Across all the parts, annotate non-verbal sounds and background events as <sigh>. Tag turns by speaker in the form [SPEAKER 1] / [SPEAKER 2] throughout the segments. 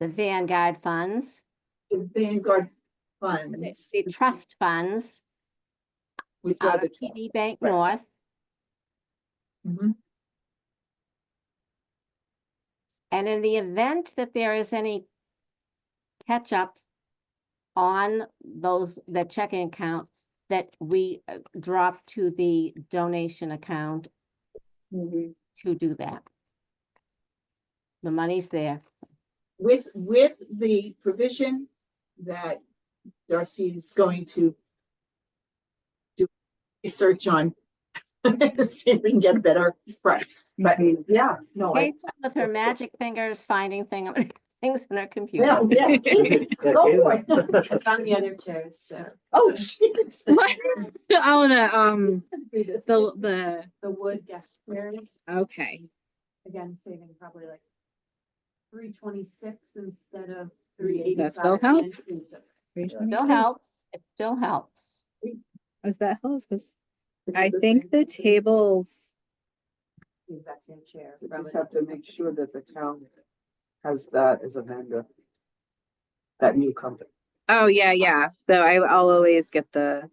[SPEAKER 1] the Vanguard funds,
[SPEAKER 2] the Vanguard
[SPEAKER 1] the
[SPEAKER 2] funds.
[SPEAKER 1] the trust funds
[SPEAKER 2] We've got
[SPEAKER 1] out
[SPEAKER 2] the
[SPEAKER 1] of
[SPEAKER 2] trust.
[SPEAKER 1] TD Bank
[SPEAKER 2] right.
[SPEAKER 1] North.
[SPEAKER 2] Mhm.
[SPEAKER 1] And in the event that there is any catch up on those, the checking account, that we uh, drop to the donation account
[SPEAKER 2] Mhm.
[SPEAKER 1] to do that. The money's there.
[SPEAKER 2] With, with the provision that Darcy is going to do research on, <laughs> see if we can get a better price, but yeah, no. Oh, I-
[SPEAKER 1] Kate,
[SPEAKER 2] <laughs>
[SPEAKER 1] With her magic fingers finding thing, <laughs> things on her
[SPEAKER 2] Yeah,
[SPEAKER 1] computer. <laughs>
[SPEAKER 2] yeah. Go for it.
[SPEAKER 3] It's on the other chair, so
[SPEAKER 2] Oh,
[SPEAKER 3] <laughs>
[SPEAKER 2] jeez.
[SPEAKER 4] What? <laughs> oh, the um,
[SPEAKER 3] do this,
[SPEAKER 4] the the
[SPEAKER 3] the wood guest
[SPEAKER 1] Um,
[SPEAKER 3] chairs,
[SPEAKER 4] okay.
[SPEAKER 3] again, saving probably like three twenty-six instead of three eighty-five.
[SPEAKER 4] That still helps.
[SPEAKER 1] Still helps, it still helps.
[SPEAKER 4] Is that helps? Because
[SPEAKER 2] This is
[SPEAKER 4] I
[SPEAKER 2] the
[SPEAKER 4] think
[SPEAKER 2] same.
[SPEAKER 4] the tables.
[SPEAKER 3] The exact same chair.
[SPEAKER 5] So
[SPEAKER 3] from
[SPEAKER 5] just
[SPEAKER 3] a
[SPEAKER 5] have to
[SPEAKER 3] different
[SPEAKER 5] make
[SPEAKER 3] company.
[SPEAKER 5] sure that the town has that as a vendor. That new company.
[SPEAKER 4] Oh yeah, yeah. So I, I'll always get the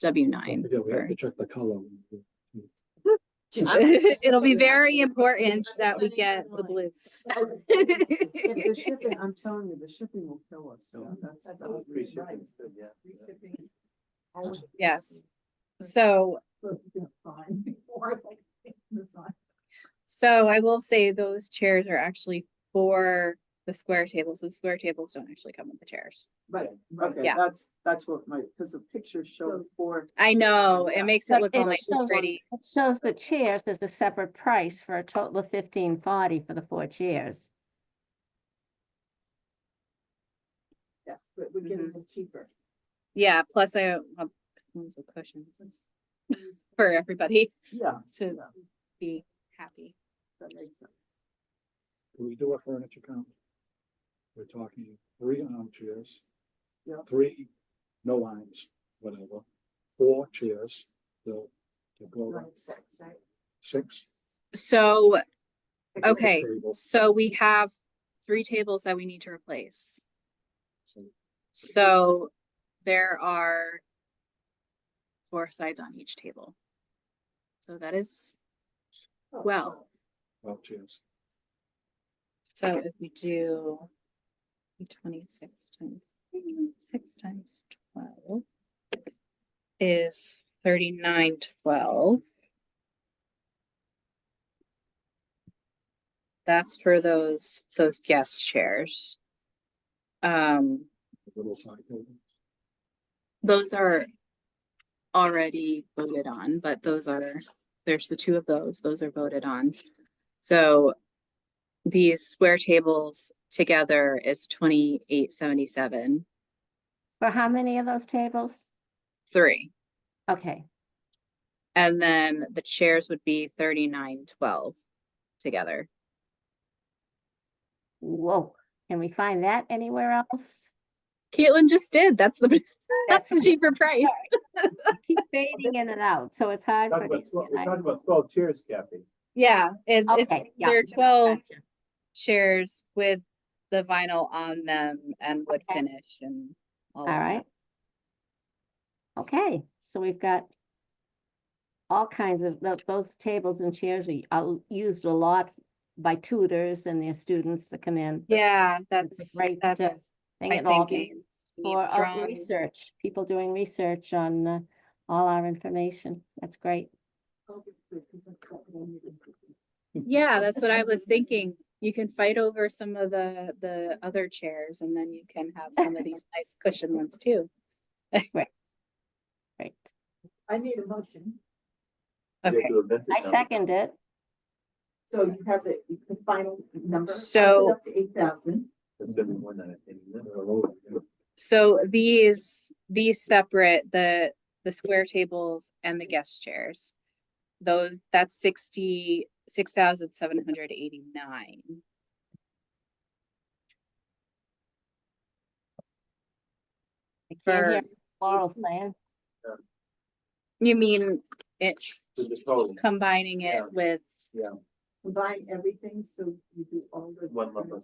[SPEAKER 4] W nine.
[SPEAKER 6] Yeah, we have to check the color.
[SPEAKER 2] <laughs>
[SPEAKER 4] <laughs> It'll be very important that we get the blues.
[SPEAKER 5] If the shipping, I'm telling you, the shipping will kill us, so that's.
[SPEAKER 3] That's all
[SPEAKER 5] Free
[SPEAKER 3] free
[SPEAKER 5] shipping.
[SPEAKER 3] shipping's
[SPEAKER 5] yeah.
[SPEAKER 3] Free shipping.
[SPEAKER 4] Yes. So
[SPEAKER 2] So it's been fine <laughs> before, it's like, this one.
[SPEAKER 4] so I will say those chairs are actually for the square tables. The square tables don't actually come with the chairs.
[SPEAKER 5] Right, okay,
[SPEAKER 4] Yeah.
[SPEAKER 5] that's, that's what my, because the pictures show four.
[SPEAKER 4] I know it makes it
[SPEAKER 1] But
[SPEAKER 4] look
[SPEAKER 1] it
[SPEAKER 4] all nice and
[SPEAKER 1] shows-
[SPEAKER 4] pretty.
[SPEAKER 1] It shows the chairs as a separate price for a total of fifteen forty for the four chairs.
[SPEAKER 2] Yes, Mm-hmm. but we're getting them cheaper.
[SPEAKER 4] Yeah, plus I want ones with cushions <laughs> for everybody
[SPEAKER 5] Yeah,
[SPEAKER 4] to be happy.
[SPEAKER 5] that makes sense.
[SPEAKER 6] Can we do a furniture count? We're talking three armchairs.
[SPEAKER 5] Yeah.
[SPEAKER 6] Three, no arms, whatever, four chairs, the, the go
[SPEAKER 3] Like
[SPEAKER 6] around,
[SPEAKER 3] six, right?
[SPEAKER 6] six.
[SPEAKER 4] So,
[SPEAKER 6] with the
[SPEAKER 4] okay,
[SPEAKER 6] table,
[SPEAKER 4] so we have three tables that we need to replace.
[SPEAKER 6] so
[SPEAKER 4] So there are four sides on each table. So that is, well,
[SPEAKER 6] Twelve chairs.
[SPEAKER 4] so if we do twenty-six times, six times twelve is thirty-nine twelve. That's for those, those guest chairs. Um,
[SPEAKER 6] the little side tables.
[SPEAKER 4] those are already voted on, but those are, there's the two of those, those are voted on. So these square tables together is twenty-eight seventy-seven,
[SPEAKER 1] For how many of those tables?
[SPEAKER 4] three.
[SPEAKER 1] Okay,
[SPEAKER 4] And then the chairs would be thirty-nine twelve together.
[SPEAKER 1] whoa, can we find that anywhere else?
[SPEAKER 4] Caitlin just did, that's the, <laughs> that's the
[SPEAKER 1] That's-
[SPEAKER 4] cheaper price. <laughs>
[SPEAKER 1] Keep fading in and out, so it's hard for.
[SPEAKER 7] Talking
[SPEAKER 1] me
[SPEAKER 7] about
[SPEAKER 1] to
[SPEAKER 7] twelve, we're
[SPEAKER 1] realize.
[SPEAKER 7] talking about twelve chairs, Kathy.
[SPEAKER 4] Yeah, it's, it's,
[SPEAKER 1] Okay, yeah.
[SPEAKER 4] they're
[SPEAKER 1] gotcha.
[SPEAKER 4] twelve chairs with the vinyl on them and wood
[SPEAKER 1] Okay.
[SPEAKER 4] finish and.
[SPEAKER 1] All
[SPEAKER 4] of that.
[SPEAKER 1] right. Okay, so we've got all kinds of, tho- those tables and chairs are are used a lot by tutors and their students that come in.
[SPEAKER 4] Yeah,
[SPEAKER 1] It's a
[SPEAKER 4] that's,
[SPEAKER 1] great, uh,
[SPEAKER 4] that's
[SPEAKER 1] They
[SPEAKER 4] my
[SPEAKER 1] get all the-
[SPEAKER 4] thinking.
[SPEAKER 1] For
[SPEAKER 4] Steve
[SPEAKER 1] uh, <laughs>
[SPEAKER 4] Strong.
[SPEAKER 1] research, people doing research on uh, all our information. That's great.
[SPEAKER 4] Yeah, that's what I was thinking. You can fight over some of the, the other chairs and then you can have some of these nice cushion ones too.
[SPEAKER 1] Great.
[SPEAKER 2] I made a motion,
[SPEAKER 7] You have
[SPEAKER 4] Okay,
[SPEAKER 7] to invent it
[SPEAKER 1] I
[SPEAKER 7] now.
[SPEAKER 1] second it.
[SPEAKER 2] so you have the, the final number. I said
[SPEAKER 4] So-
[SPEAKER 2] Up to eight thousand.
[SPEAKER 7] That's gonna be more than I think.
[SPEAKER 4] so these, these separate, the, the square tables and the guest chairs. Those, that's sixty, six thousand seven hundred eighty-nine.
[SPEAKER 1] I can't hear
[SPEAKER 4] For-
[SPEAKER 1] Laurel saying,
[SPEAKER 4] You mean it,
[SPEAKER 7] To the total,
[SPEAKER 4] combining
[SPEAKER 7] Yeah.
[SPEAKER 4] it with
[SPEAKER 2] Combine everything, so you do all the.
[SPEAKER 7] One lump sum.